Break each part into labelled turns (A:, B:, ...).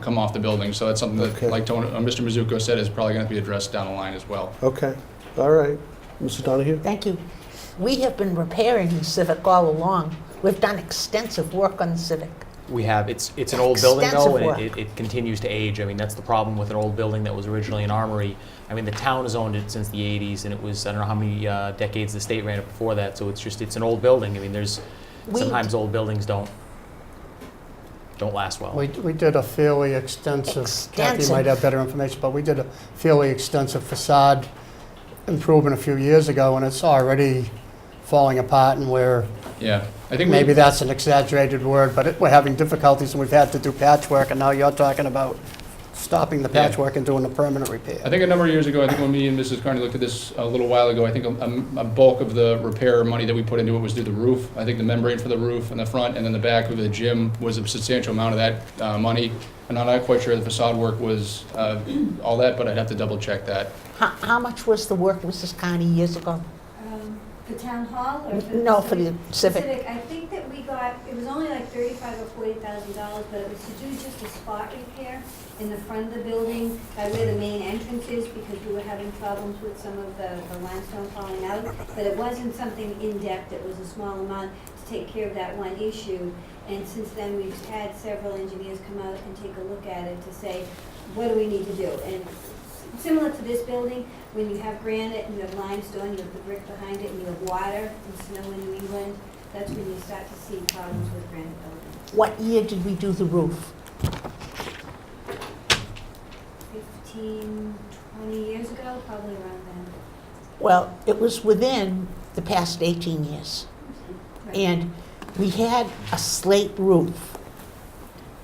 A: come off the building. So that's something that,
B: Okay.
A: like Tony- uh, Mr. Mizuko said, is probably going to be addressed down the line as well.
B: Okay, all right. Mr. Donahue?
C: Thank you. We have been repairing the Civic all along. We've done extensive work on the Civic.
D: We have, it's, it's an old building though,
C: Extensive
D: and it-
C: work.
D: it, it continues to age. I mean, that's the problem with an old building that was originally an armory. I mean, the town has owned it since the eighties, and it was, I don't know how many uh, decades the state ran it before that, so it's just, it's an old building. I mean, there's,
C: We-
D: sometimes old buildings don't, don't last well.
E: We, we did a fairly extensive, Kathy
C: Extensive.
E: might have better information, but we did a fairly extensive facade improvement a few years ago, and it's already falling apart, and we're,
A: Yeah, I think
E: maybe
A: we,
E: that's an exaggerated word, but it- we're having difficulties, and we've had to do patchwork, and now you're talking about stopping the
A: Yeah.
E: patchwork and doing a permanent repair.
A: I think a number of years ago, I think when me and Mrs. Carney looked at this a little while ago, I think a, a bulk of the repair money that we put into it was through the roof. I think the membrane for the roof and the front and then the back of the gym was a substantial amount of that uh, money. And I'm not quite sure the facade work was uh, all that, but I'd have to double check that.
C: How, how much was the work, Mrs. Connie, years ago?
F: Um, The town hall or? for the
C: No, for the
F: civic?
C: Civic.
F: I think that we got, it was only like thirty-five or forty thousand dollars, but it was to do just a spot repair in the front of the building by where the main entrance is, because we were having problems with some of the the limestone falling out. But it wasn't something in-depth, it was a small amount to take care of that one issue. And since then, we've had several engineers come out and take a look at it to say, what do we need to do? And similar to this building, when you have granite and you have limestone, you have the brick behind it, and you have water and snow in New England, that's when you start to see problems with granite buildings.
C: What year did we do the roof?
F: Fifteen, twenty years ago, probably around then.
C: Well, it was within the past 18 years.
F: Right.
C: And we had a slate roof.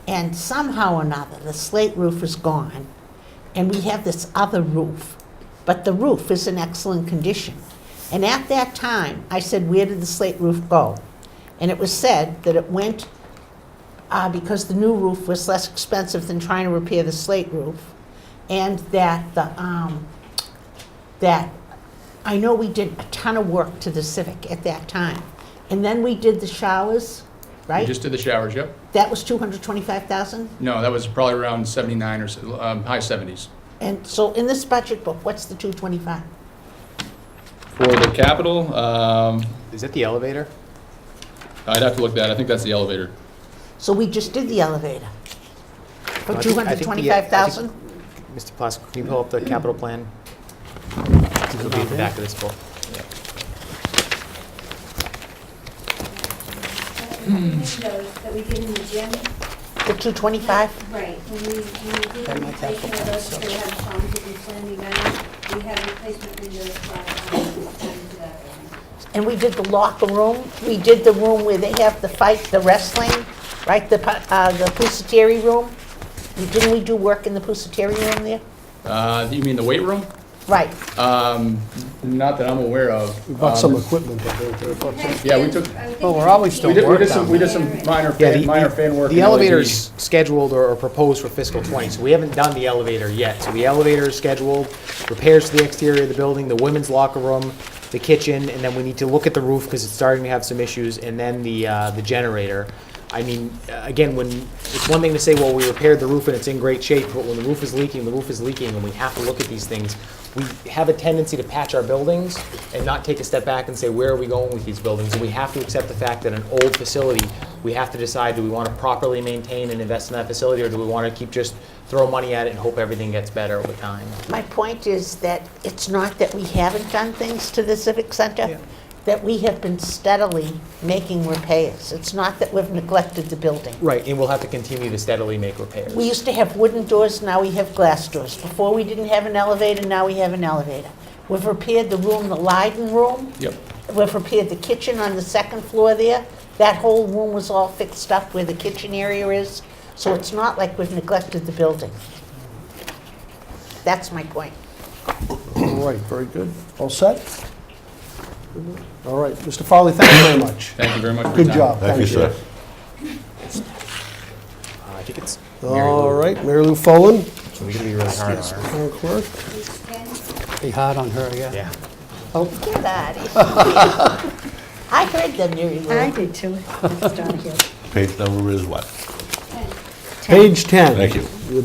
C: And somehow or another, the slate roof is gone. And we have this other roof. But the roof is in excellent condition. And at that time, I said, where did the slate roof go? And it was said that it went, uh, because the new roof was less expensive than trying to repair the slate roof. And that the, um, that I know we did a ton of work to the Civic at that time. And then we did the showers,
A: We
C: right?
A: just did the showers, yep.
C: That was 225,000?
A: No, that was probably around 79 or, s- um, high 70s.
C: And so in this budget book, what's the 225?
A: For the capital, um,
D: Is it the elevator?
A: I'd have to look that, I think that's the elevator.
C: So we just did the elevator for
D: I think- I think the, uh, I think-
C: 225,000?
D: Mr. Plasko, can you pull up the capital plan? It'll be at the back of this book.
F: But the Windows that we did in the gym,
C: The 225?
F: right, when we, when we did
E: That
F: the
E: might have
F: replacement of those, they had problems with the slamming down, we had replacement windows brought on into that building.
C: And we did the locker room, we did the room where they have the fight, the wrestling, right, the, pu- uh, the pusateri room? Didn't we do work in the pusateri room there?
A: Uh, you mean the weight room?
C: Right,
A: Um, not that I'm aware of.
B: We bought
A: Um,
B: some equipment, I think.
A: Yeah, we took-
E: Well, we're always
A: We
E: still
A: did, we did
E: working
A: some, we did some minor
D: Yeah, the-
A: fan, minor fan work.
D: The
A: in
D: elevator's scheduled or or proposed for fiscal '20, so we haven't done the elevator yet. So the elevator is scheduled, repairs to the exterior of the building, the women's locker room, the kitchen, and then we need to look at the roof because it's starting to have some issues, and then the, uh, the generator. I mean, uh, again, when, it's one thing to say, well, we repaired the roof and it's in great shape, but when the roof is leaking, the roof is leaking, and we have to look at these things. We have a tendency to patch our buildings and not take a step back and say, where are we going with these buildings? And we have to accept the fact that an old facility, we have to decide, do we want to properly maintain and invest in that facility, or do we want to keep just throw money at it and hope everything gets better over time?
C: My point is that it's not that we haven't done things to the Civic Center, that we have been steadily making repairs. It's not that we've neglected the building.
D: Right, and we'll have to continue to steadily make repairs.
C: We used to have wooden doors, now we have glass doors. Before, we didn't have an elevator, now we have an elevator. We've repaired the room, the Leiden room.
A: Yep.
C: We've repaired the kitchen on the second floor there. That whole room was all fixed up where the kitchen area is, so it's not like we've neglected the building. That's my point.
B: All right, very good. All set? All right, Mr. Foley, thank you very much.
A: Thank you very much for your
B: Good
A: time.
B: job.
G: Thank you, sir.
D: Uh, I think it's Mary Lou.
B: All right, Mary Lou Follen,
D: So we're gonna be really hard on her.
B: town clerk.
E: Be hard on her, yeah.
D: Yeah.
C: Get out of here. I heard them, Mary Lou.
H: I did too, Mr. Donahue.
G: Page number is what?
I: Page 10.
B: Thank you.